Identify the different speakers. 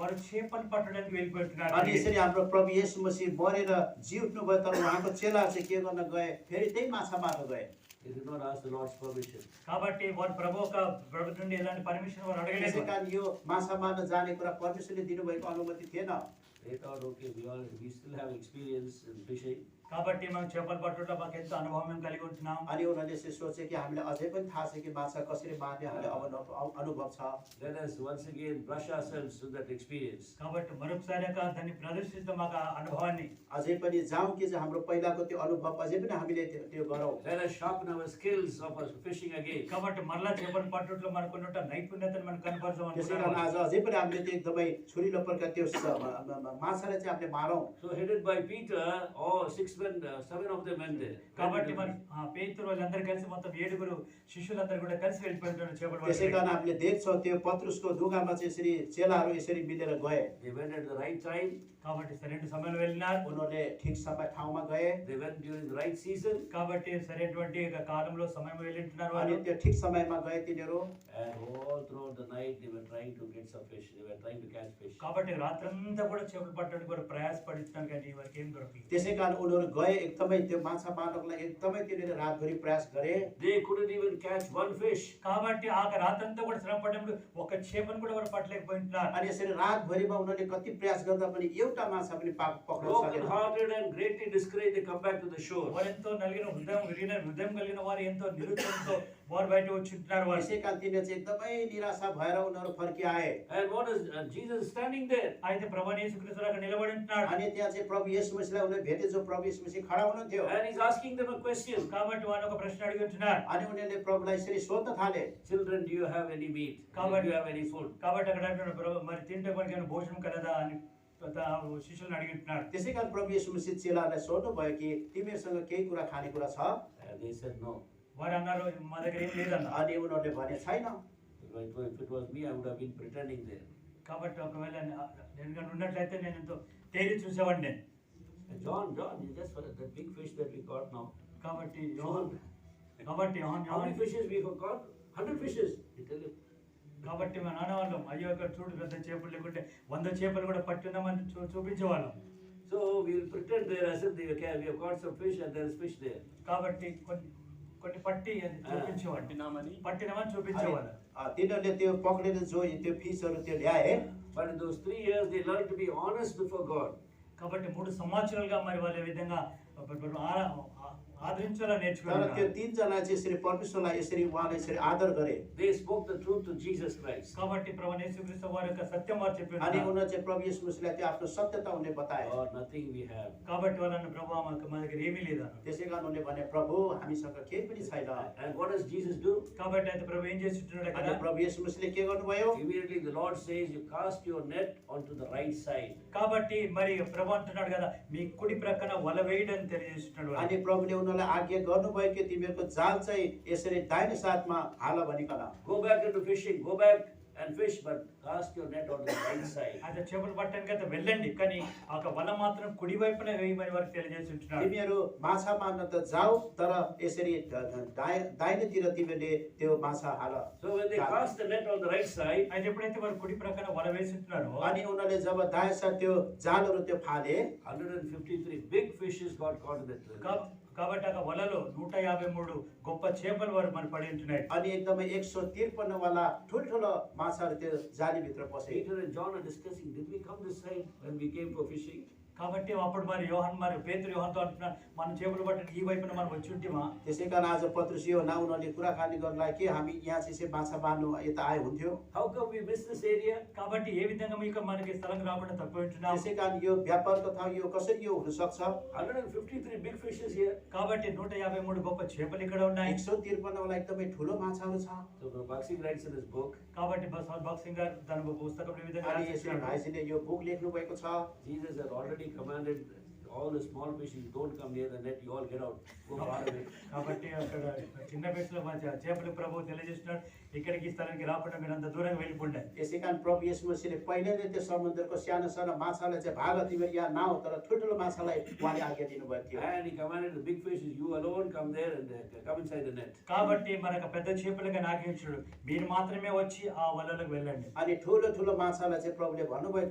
Speaker 1: వారు చేపలు పట్టడానికి వెళ్ళిపోతున్నారు
Speaker 2: अनि यसरी हाम्रो प्रभु येशू मसीह मरेर जी उठ्नुभयो तर उहाँको चेला चाहिँ के गर्न गए फेरि त्यही माछा मार्न गए
Speaker 3: They did not ask the Lord's permission.
Speaker 1: కాబట్టి వారు ప్రభు యొక్క ప్రభు నుండి ఎలాంటి పర్మిషన్ వారు
Speaker 2: त्यसै
Speaker 1: అడగలేదు
Speaker 2: कारण यो माछा मार्न जाने कुरा परमेश्वरले दिनुभएको अनुमति थिएन
Speaker 3: They thought, okay, we all, we still have experience in fishing.
Speaker 1: కాబట్టి మేము చేపలు పట్టడంలో మాకు ఎంతో అనుభవం మేము కలిగి ఉంటున్నాం
Speaker 2: अनि उनीहरूले चाहिँ सोचे कि हामीलाई अझै पनि थाहा छ कि माछा कसरी मार्ने हामीलाई अब न- अनुभव छ
Speaker 3: Let us once again brush ourselves to that experience.
Speaker 1: కాబట్టి మరొకసారి యొక్క దాన్ని ప్రదర్శిస్తాం మాకు ఆ అనుభవాన్ని
Speaker 2: अझै पनि जाउँ कि चाहिँ हाम्रो पहिलाको त्यो अनुभव अझै पनि हामीले त्यो त्यो गरौँ
Speaker 3: Let us sharpen our skills of us fishing again.
Speaker 1: కాబట్టి మరలా చేపలు పట్టడంలో మనకు ఉన్న నైపుణ్యతను మనం
Speaker 2: त्यसै कारण
Speaker 1: కనపరచాం
Speaker 2: आज अझै पनि हामीले त्यो एकदमै छुरिलो प्रकार त्यो स- म- म- म- माछालाई चाहिँ हामीले मारौँ
Speaker 3: So headed by Peter, all six men, uh, seven of them went there.
Speaker 1: కాబట్టి మరి ఆ పేతురు వాళ్ళందరూ కలిసి మొత్తం ఏడుగురు శిష్యులందరూ కూడా కలిసి వెళ్ళిపోతున్నారు చేపలు
Speaker 2: त्यसै कारण
Speaker 1: పట్టడానికి.
Speaker 2: हामीले देख्छौँ त्यो पत्रुसको ढुङ्गामा चाहिँ यसरी चेलाहरू यसरी मिलेर गए
Speaker 3: They went at the right time,
Speaker 1: కాబట్టి సరైన సమయంలో వెళ్ళినారు
Speaker 2: उनीहरूले ठिक समय ठाउँमा गए
Speaker 3: they went during the right season,
Speaker 1: కాబట్టి సరైనటువంటి ఒక కాలంలో సమయం వెళ్ళింటున్నారు
Speaker 2: अनि
Speaker 1: వాళ్ళు
Speaker 2: त्यो ठिक समयमा गए तिनीहरू
Speaker 3: and all throughout the night they were trying to get some fish, they were trying to catch fish.
Speaker 1: కాబట్టి రాత్రంతా కూడా చేపలు పట్టడానికి వారు ప్రయాసపడుతున్నారు కానీ వారికి ఏం దొరకలేదు
Speaker 2: त्यसै कारण उनीहरू गए एकदमै त्यो माछा मार्नको लागि एकदमै तिनीहरूले रातभरि प्रयास गरे
Speaker 3: They couldn't even catch one fish.
Speaker 1: కాబట్టి ఆ రాత్రంతా కూడా శ్రమ పడినప్పుడు ఒక చేపను కూడా వారు పట్టలేకపోయింటున్నారు
Speaker 2: अनि यसरी रातभरिमा उनीहरूले कति प्रयास गर्दा पनि एउटा माछा पनि पाक पक्राउन
Speaker 3: Broken
Speaker 2: सकेन
Speaker 3: hearted and greatly discouraged, they come back to the shore.
Speaker 1: వారెంతో నలిగిన హృదయం విరిగిన హృదయం కలిగిన వారు ఎంతో నిరుత్సవంతో వారు బయట వచ్చింటున్నారు వారు
Speaker 2: त्यसै कारण तिनीहरू चाहिँ एकदमै निराशा भएर उनीहरू फर्किआए
Speaker 3: And what is, and Jesus is standing there.
Speaker 1: అయితే ప్రభు యేసుక్రీస్తు అక్కడ నిలబడి ఉంటున్నాడు
Speaker 2: अनि त्यहाँ चाहिँ प्रभु यस मसीलाई उनीहरूले भेटे जो प्रभु यस मसी खडा हुनुहुन्थ्यो
Speaker 3: And he's asking them a question.
Speaker 1: కాబట్టి వారు ఒక ప్రశ్న అడిగి ఉంటున్నారు
Speaker 2: अनि उनीहरूले प्रभुलाई यसरी सोध्न थाले
Speaker 3: Children, do you have any meat?
Speaker 1: Come
Speaker 3: Do you
Speaker 1: on.
Speaker 3: have any food?
Speaker 1: కాబట్టి అక్కడ అంటున్నాడు, ప్రభు మరి తింటే మనకి ఏమైనా భోజనం కలదా అని తా- శిష్యులను అడిగి ఉంటున్నాడు
Speaker 2: त्यसै कारण प्रभु यस मसी चेलाहरूलाई सोध्नुभयो कि तिमीहरूसँग केही कुरा खानेकुरा छ
Speaker 3: And they said, no.
Speaker 1: వారు అన్నారు మా దగ్గర ఏం లేదన్నారు
Speaker 2: अनि उनीहरूले भने छैन
Speaker 3: If it were- if it was me, I would have been pretending there.
Speaker 1: కాబట్టి ఒకవేళ నా- నేను కనుక ఉన్నట్లయితే నేను ఎంతో తేలి చూసేవాడిని నేను
Speaker 3: And John, John, you just for that big fish that we caught now.
Speaker 1: కాబట్టి యోహాన్
Speaker 3: John,
Speaker 1: కాబట్టి యోహాన్
Speaker 3: how many
Speaker 1: Yohan
Speaker 3: fishes we have caught? Hundred fishes. He tell him.
Speaker 1: కాబట్టి మా నాన్న వాళ్ళం అయ్యో ఇక్కడ చూడు పెద్ద చేపలు లేకుంటే వంద చేపలు కూడా పట్టున్నామని చూ చూపించేవాళ్ళం
Speaker 3: So we will pretend there as if they okay, we have caught some fish and there is fish there.
Speaker 1: కాబట్టి కొన్ని కొన్ని పట్టి అది చూపించేవాడు
Speaker 4: పట్టినామని
Speaker 1: పట్టినామని
Speaker 2: अनि,
Speaker 1: చూపించేవాళ్ళు
Speaker 2: अ, तिनीहरूले त्यो पक्रेर जो त्यो फिसहरू त्यो ल्याए
Speaker 3: But in those three years, they learned to be honest before God.
Speaker 1: కాబట్టి మూడు సంవత్సరాలుగా మరి వాళ్ళు ఈ విధంగా బ- బ- ఆరా- ఆ- ఆదరించాలని
Speaker 2: तर त्यो
Speaker 1: నేర్చుకున్నారు
Speaker 2: तिनजना चाहिँ यसरी परमेश्वरलाई यसरी उहाँलाई यसरी आदर गरे
Speaker 3: They spoke the truth to Jesus Christ.
Speaker 1: కాబట్టి ప్రభు యేసుక్రీస్తు వారి యొక్క సత్యం వారు
Speaker 2: अनि
Speaker 1: చెప్పారు
Speaker 2: उनीहरू चाहिँ प्रभु यस मसीलाई त्यो आफ्नो सत्यता उनले बताए
Speaker 3: Or nothing we have.
Speaker 1: కాబట్టి వాళ్ళని ప్రభు మాకు మా దగ్గర ఏమీ లేదన్నారు
Speaker 2: त्यसै कारण उनले भने प्रभु हामीसँग केही पनि छैन
Speaker 3: And what does Jesus do?
Speaker 1: కాబట్టి అయితే ప్రభు ఏం చేస్తున్నాడు
Speaker 2: अनि
Speaker 1: కదా
Speaker 2: प्रभु यस मसीले के गर्नुभयो
Speaker 3: Immediately the Lord says, You cast your net onto the right side.
Speaker 1: కాబట్టి మరి ప్రభు అంటున్నాడు కదా మీ కుడి ప్రక్కన వల వేయడని తెలియజేస్తున్నాడు
Speaker 2: अनि
Speaker 1: వాడు.
Speaker 2: प्रभुले उनीहरूलाई आज्ञा गर्नुभयो कि तिमीहरूको जाल चाहिँ यसरी दाहिने साथमा हाल भनिकन
Speaker 3: Go back into fishing, go back and fish, but cast your net onto the right side.
Speaker 1: అయితే చేపలు పట్టడానికి అయితే వెళ్ళండి కానీ ఆ యొక్క వల మాత్రం కుడి వైపున వేయమని వారికి తెలియజేస్తున్నాడు
Speaker 2: तिमीहरू माछा मार्न त जाऊ तर यसरी द- द- दाहि- दाहिनेतिर तिमीहरूले त्यो माछा हाल
Speaker 3: So when they cast the net on the right side,
Speaker 1: అయితే ఎప్పుడైతే వారు కుడి ప్రక్కన వల వేసుకుంటున్నారో
Speaker 2: अनि उनीहरूले जब दाहिने साथ त्यो जालहरू त्यो फाले
Speaker 3: 153 big fishes got caught in that net.
Speaker 1: కాబ- కాబట్టి ఆ యొక్క వలలో నూట యాభై మూడు గొప్ప చేపలు వారు మన పడి ఉంటున్నాయి
Speaker 2: अनि एकदमै एक सौ त्रिपन्नवाला ठुल्ठुलो माछाहरू त्यो जालीभित्र पसे
Speaker 3: Peter and John are discussing, Did we come this side when we came for fishing?
Speaker 1: కాబట్టి అప్పుడు మరి యోహన్ మరి పేతురు యోహన్తో అంటున్నారు మనం చేపలు పట్టడానికి ఈ వైపున మనం వచ్చి ఉంటేమా
Speaker 2: त्यसै कारण आज पत्रुस यो हुँदा उनीहरूले कुराकानी गर्नलाई कि हामी यहाँ चाहिँ यसरी माछा मार्नु यता आए हुन्थ्यो
Speaker 3: How come we missed this area?
Speaker 1: కాబట్టి ఏ విధంగా మీకు మనకి స్థలం రాకుండా తక్కువ ఉంటున్నాం
Speaker 2: त्यसै कारण यो व्यापारको ठाउँ यो कसरी यो हुनसक्छ
Speaker 3: 153 big fishes here.
Speaker 1: కాబట్టి నూట యాభై మూడు గొప్ప చేపలు ఇక్కడ ఉన్నాయి
Speaker 2: एक सौ त्रिपन्नवाला एकदमै ठुलो माछाहरू छ
Speaker 3: So Baxing writes in his book,
Speaker 1: కాబట్టి బస్ బాక్సింగ్ సింగ్ గారు తన ఒక పుస్తకంలో ఈ విధంగా
Speaker 2: अनि यसरी
Speaker 1: రాసేస్తున్నాడు.
Speaker 2: भाइजीले यो बुक लेख्नु भएको छ
Speaker 3: Jesus had already commanded all the small fishes, don't come near the net, you all get out, go far away.
Speaker 1: కాబట్టి అక్కడ చిన్న వయసులో మంచి చేపలు ప్రభు తెలియజేస్తున్నాడు ఇక్కడికి ఈ స్థలానికి రాకుండా మీరు అంత దూరంగా వెళ్ళిపోండి
Speaker 2: यसै कारण प्रभु यस मसीले पहिले नै त्यो समुद्रको सानो सानो माछालाई चाहिँ भाग तिमीहरू यहाँ नाउ तर ठुल्ठुलो माछालाई उहाँले आज्ञा दिनुभएको थियो
Speaker 3: And he commanded the big fishes, you alone come there and uh, come inside the net.
Speaker 1: కాబట్టి మనకు పెద్ద చేపలుగా నాగించుడు మీరు మాత్రమే వచ్చి ఆ వలలకు వెళ్ళండి
Speaker 2: अनि ठुलो ठुलो माछालाई चाहिँ प्रभुले भन्नुभएको